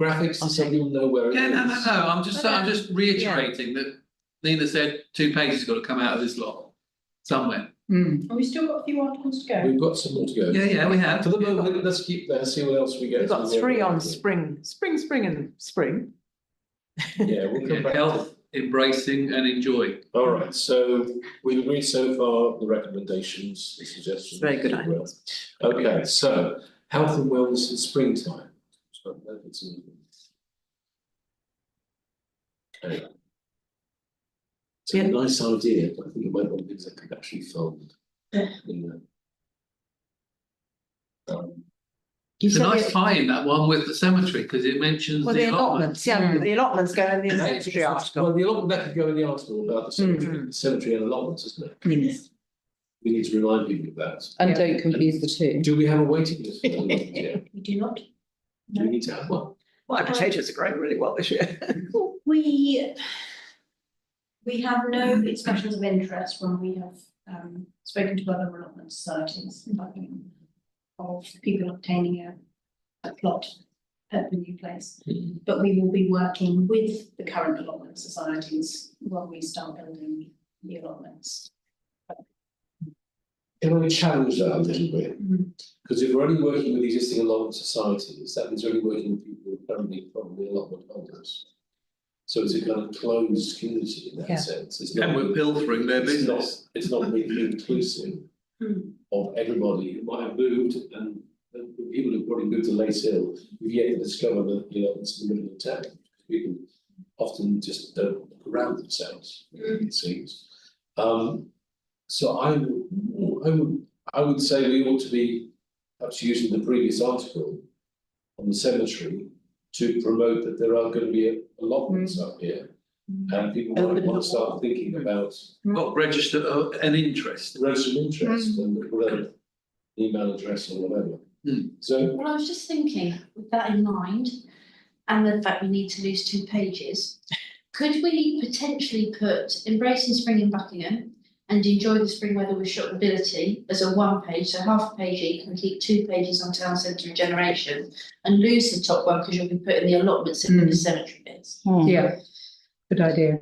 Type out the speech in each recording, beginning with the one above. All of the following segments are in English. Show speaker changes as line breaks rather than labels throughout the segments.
graphics, so
Okay.
you'll know where it is.
Yeah, no, no, no, I'm just, I'm just reiterating that Nina said two pages got to come out of this lot somewhere.
Mm.
And we still got a few articles to go.
We've got some more to go.
Yeah, yeah, we have.
For the moment, let's keep there, see what else we get.
We've got
to.
three on spring, spring, spring and spring.
Yeah, we'll come
Yeah,
back.
Health, embracing and enjoy.
All right, so we agree so far the recommendations, the suggestions.
Very good
if you will. Okay, so health and wellness in springtime. So I don't know if it's in- Okay. It's a
Yeah.
nice idea, but I think it might be things that could actually fold. in the- Um,
You
It's a
said
nice
the-
tie in that one with the cemetery, because it mentions
Well, the
the allotment.
allotments, yeah, Um, the allotments go in the cemetery
Well,
article.
the allotment, that could go in the article about the cemetery, the cemetery and allotments, isn't it?
Mm.
Yes.
We need to remind people of that.
And don't confuse the two.
Do we have a waiting list? for allotments yet?
We do not.
Do we need to have one?
My potatoes are growing really well this year.
We, we have no expressions of interest when we have um spoken to other relevant societies about the- of people obtaining a a plot at the new place.
Mhm.
But we will be working with the current allotment societies when we start building the allotments.
Can I challenge that a little bit?
Mm.
Because if we're only working with existing allotment societies, that means we're only working with people who are currently probably allotment holders. So it's a kind of closed community in
Yeah.
that sense, it's not.
And we're pilfering their
it's not-
business.
It's not really inclusive
Hmm.
of everybody who might have moved and and the people who've probably moved to Lace Hill, who've yet to discover that, you know, it's the middle of town. People often just don't look around themselves, it seems. Um, so I would, I would, I would say we ought to be perhaps using the previous article on the cemetery to promote that there are going to be allotments up here. And people might
Open
want
up.
to start thinking about
Well, register uh, an interest.
registered interest and whatever, email address or whatever.
Hmm.
So,
Well, I was just thinking, with that in mind, and the fact we need to lose two pages, could we potentially put embracing spring in Buckingham and enjoy the spring weather with shoppability as a one page, so half a page each, and keep two pages on town centre regeneration and lose the top one because you'll be putting the allotments in with the cemetery bits.
Mm.
Yeah,
good idea.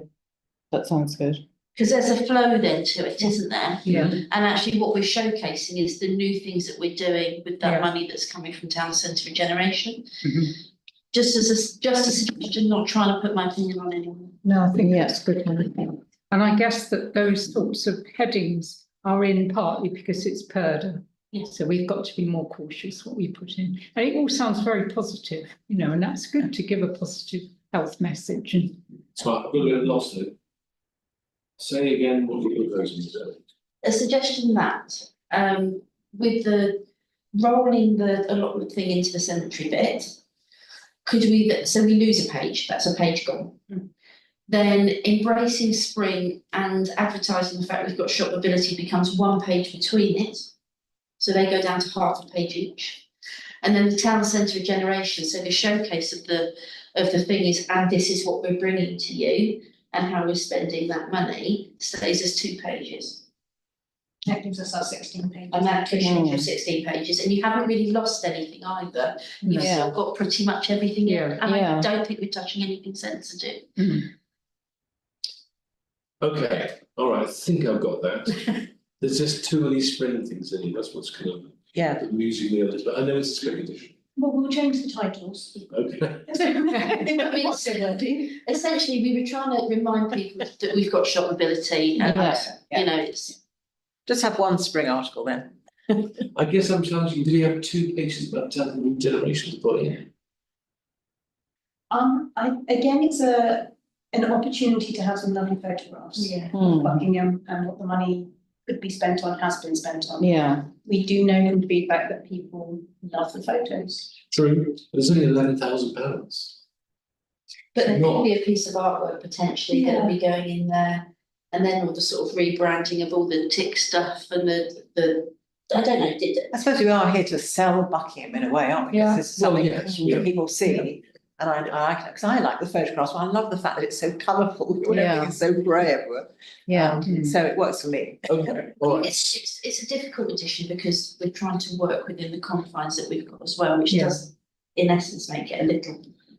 that sounds good.
Because there's a flow then to it, isn't there?
Yeah.
And actually what we're showcasing is the new things that we're doing with
Yeah.
that money that's coming from town centre regeneration.
Mhm.
Just as a, just a suggestion, not trying to put my opinion on anyone.
No, I think
Yeah.
that's good. Helen. And I guess that those sorts of headings are in partly because it's Purda.
Yes.
So we've got to be more cautious what we put in. And it all sounds very positive, you know, and that's good to give a positive health message and
so I've got a bit lost there. Say again what you're proposing, so.
A suggestion that, um, with the rolling the allotment thing into the cemetery bit, could we, so we lose a page, that's a page gone. Then embracing spring and advertising the fact we've got shop ability becomes one page between it. So they go down to half a page each. And then the town centre regeneration, so the showcase of the, of the thing is, and this is what we're bringing to you and how we're spending that money, stays as two pages.
That gives us our sixteen pages.
And that gives you
Mm.
your sixteen pages, and you haven't really lost anything either. You've
Yeah.
still got pretty much everything in,
Yeah.
and I
Yeah.
don't think we're touching anything sensitive.
Okay, all right, I think I've got that. There's just too many spring things in here, that's what's kind of
Yeah.
amusing me a little bit, I know it's a spring edition,
Well, we'll change the titles.
okay?
What's Essentially, we were trying to remind people that we've got shopability and,
Yeah.
you know, it's,
Just have one spring article then.
I guess I'm challenging, do we have two pages about town and regeneration to put in?
Um, I, again, it's a, an opportunity to have some lovely photographs.
yeah.
Hmm.
of Buckingham and what the money could be spent on, has been spent on.
Yeah,
We do know from feedback that people love the photos.
True, there's only eleven thousand pounds.
But there
Not-
could be a piece of artwork potentially that would be going in there, and then all the sort of rebranding of all the tick stuff and the, the, I don't know, did,
I suppose we are here to sell Buckingham in a way, aren't we?
Yeah.
Because it's something
Well, yes, yeah.
that people see. And I, I like it, because I like the photographs, but I love the fact that it's so colourful, everything
Yeah.
is so grey everywhere.
yeah.
Um, So it works for me.
Okay, all right,
It's, it's, it's a difficult edition because we're trying to work within the confines that we've got as well, which does, in essence, make it a little